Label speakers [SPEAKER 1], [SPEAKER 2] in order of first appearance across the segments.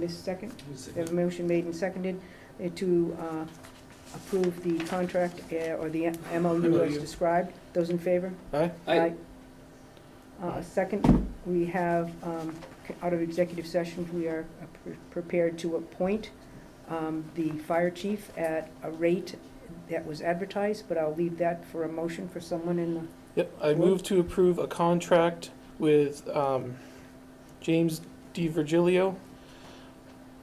[SPEAKER 1] This second, we have a motion made and seconded uh, to uh, approve the contract uh, or the MOU as
[SPEAKER 2] MOU.
[SPEAKER 1] described. Those in favor?
[SPEAKER 2] Aye.
[SPEAKER 3] Aye.
[SPEAKER 1] Uh, Second, we have, um, c- out of executive session, we are uh, pre- prepared to appoint um, the fire chief at a rate that was advertised, but I'll leave that for a motion for someone in the,
[SPEAKER 2] Yep, I move to approve a contract with um, James D. Virgilio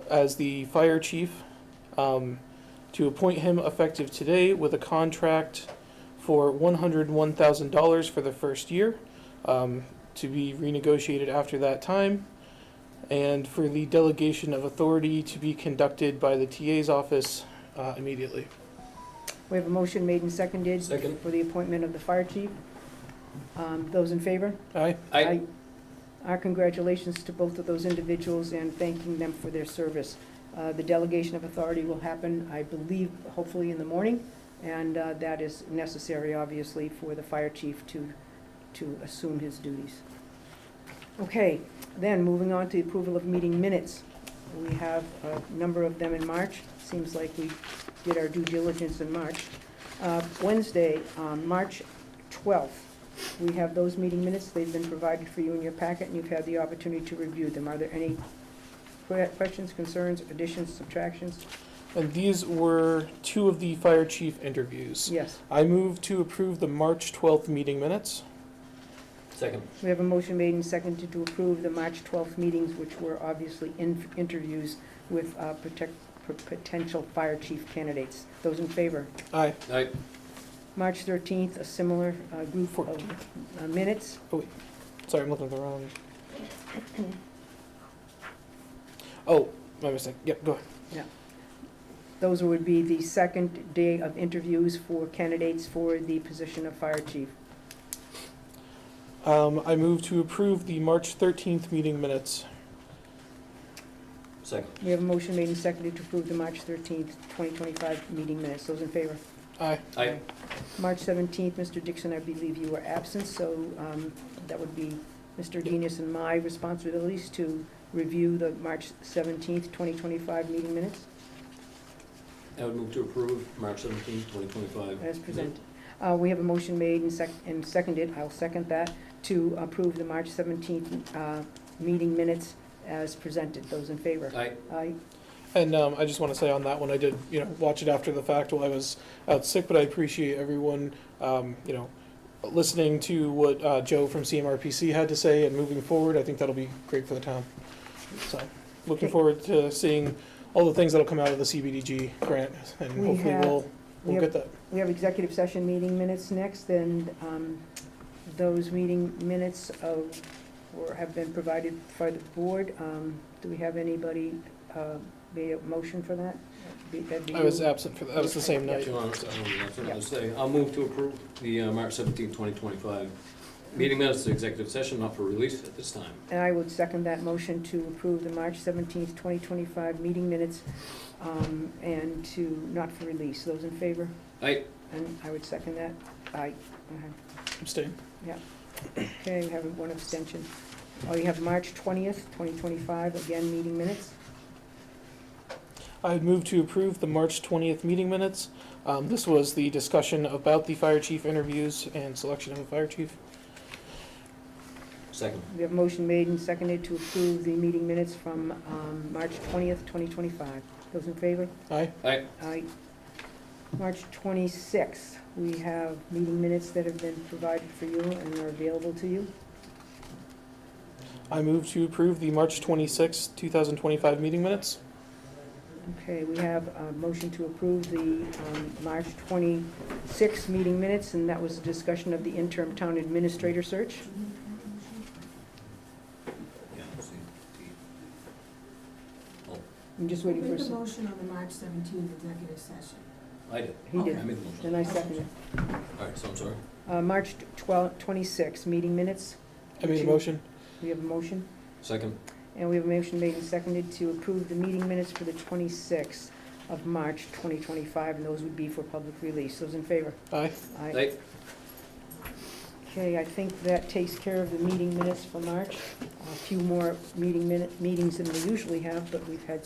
[SPEAKER 2] as the fire chief, um, to appoint him effective today with a contract for $101,000 for the first year, um, to be renegotiated after that time, and for the delegation of authority to be conducted by the TA's office uh, immediately.
[SPEAKER 1] we have a motion made and seconded
[SPEAKER 3] Second.
[SPEAKER 1] for the appointment of the fire chief. Um, Those in favor?
[SPEAKER 2] Aye.
[SPEAKER 3] Aye.
[SPEAKER 1] I- Our congratulations to both of those individuals and thanking them for their service. Uh, The delegation of authority will happen, I believe, hopefully in the morning, and uh, that is necessary, obviously, for the fire chief to, to assume his duties. Okay, then, moving on to the approval of meeting minutes. We have a number of them in March. Seems like we did our due diligence in March. Uh, Wednesday, um, March 12th, we have those meeting minutes, they've been provided for you in your packet, and you've had the opportunity to review them. Are there any que- questions, concerns, additions, subtractions?
[SPEAKER 2] And these were two of the fire chief interviews.
[SPEAKER 1] Yes.
[SPEAKER 2] I move to approve the March 12th meeting minutes.
[SPEAKER 3] Second.
[SPEAKER 1] We have a motion made and seconded to approve the March 12th meetings, which were obviously in- interviews with uh, protect- p- potential fire chief candidates. Those in favor?
[SPEAKER 2] Aye.
[SPEAKER 3] Aye.
[SPEAKER 1] March 13th, a similar uh, group of
[SPEAKER 2] 14th.
[SPEAKER 1] uh, minutes.
[SPEAKER 2] Sorry, I'm looking at the wrong. Oh, my mistake. Yep, go ahead.
[SPEAKER 1] Those would be the second day of interviews for candidates for the position of fire chief.
[SPEAKER 2] Um, I move to approve the March 13th meeting minutes.
[SPEAKER 3] Second.
[SPEAKER 1] We have a motion made and seconded to approve the March 13th, 2025 meeting minutes. Those in favor?
[SPEAKER 2] Aye.
[SPEAKER 3] Aye.
[SPEAKER 1] March 17th, Mr. Dixon, I believe you were absent, so um, that would be Mr. Genius and my responsibilities to review the March 17th, 2025 meeting minutes
[SPEAKER 3] I would move to approve March seventeenth, twenty twenty-five.
[SPEAKER 1] as presented. Uh, We have a motion made and sec- and seconded, I'll second that, to approve the March 17th uh, meeting minutes as presented. Those in favor?
[SPEAKER 3] Aye.
[SPEAKER 1] Aye.
[SPEAKER 2] And um, I just want to say on that one, I did, you know, watch it after the fact while I was out sick, but I appreciate everyone, um, you know, listening to what uh, Joe from CMRPC had to say and moving forward. I think that'll be great for the town. So, looking
[SPEAKER 1] Okay.
[SPEAKER 2] forward to seeing all the things that'll come out of the CBDG grant, and
[SPEAKER 1] We
[SPEAKER 2] hopefully
[SPEAKER 1] have-
[SPEAKER 2] we'll
[SPEAKER 1] We
[SPEAKER 2] we'll
[SPEAKER 1] have
[SPEAKER 2] get that.
[SPEAKER 1] We have executive session meeting minutes next, and um, those meeting minutes of, or have been provided for the board. Um, Do we have anybody uh, made a motion for that? Be- that'd be
[SPEAKER 2] I was
[SPEAKER 1] you.
[SPEAKER 2] absent for that. That was the same night.
[SPEAKER 3] Two on, that's what I was saying. I'll move to approve the uh, March seventeenth, twenty twenty-five. Meeting minutes to executive session, not for release at this time.
[SPEAKER 1] And I would second that motion to approve the March seventeenth, twenty twenty-five meeting minutes, um, and to, not for release. Those in favor?
[SPEAKER 3] Aye.
[SPEAKER 1] And I would second that. Aye. Uh-huh.
[SPEAKER 2] Abstain.
[SPEAKER 1] Okay, we have one abstention. Oh, you have March 20th, 2025, again, meeting minutes.
[SPEAKER 2] I would move to approve the March 20th meeting minutes. Um, This was the discussion about the fire chief interviews and selection of a fire chief.
[SPEAKER 3] Second.
[SPEAKER 1] We have motion made and seconded to approve the meeting minutes from um, March 20th, 2025. Those in favor?
[SPEAKER 2] Aye.
[SPEAKER 3] Aye.
[SPEAKER 1] Aye. March 26th, we have meeting minutes that have been provided for you and are available to you.
[SPEAKER 2] I move to approve the March 26, 2025 meeting minutes.
[SPEAKER 1] Okay, we have a motion to approve the um, March 26th meeting minutes, and that was a discussion of the interim town administrator search.
[SPEAKER 3] Yeah, let's see.
[SPEAKER 1] I'm just
[SPEAKER 4] Make
[SPEAKER 1] waiting for
[SPEAKER 4] a
[SPEAKER 1] some,
[SPEAKER 4] motion on the March seventeenth executive session.
[SPEAKER 3] I did.
[SPEAKER 1] he
[SPEAKER 3] I
[SPEAKER 1] did,
[SPEAKER 3] made the motion.
[SPEAKER 1] and I seconded.
[SPEAKER 3] All right, so I'm sorry.
[SPEAKER 1] Uh, March 12, 26, meeting minutes.
[SPEAKER 2] I made a motion.
[SPEAKER 1] We have a motion,
[SPEAKER 3] Second.
[SPEAKER 1] and we have a motion made and seconded to approve the meeting minutes for the 26th of March 2025, and those would be for public release. Those in favor?
[SPEAKER 2] Aye.
[SPEAKER 3] Aye.
[SPEAKER 1] Okay, I think that takes care of the meeting minutes for March. A few more meeting minute, meetings than we usually have, but we've had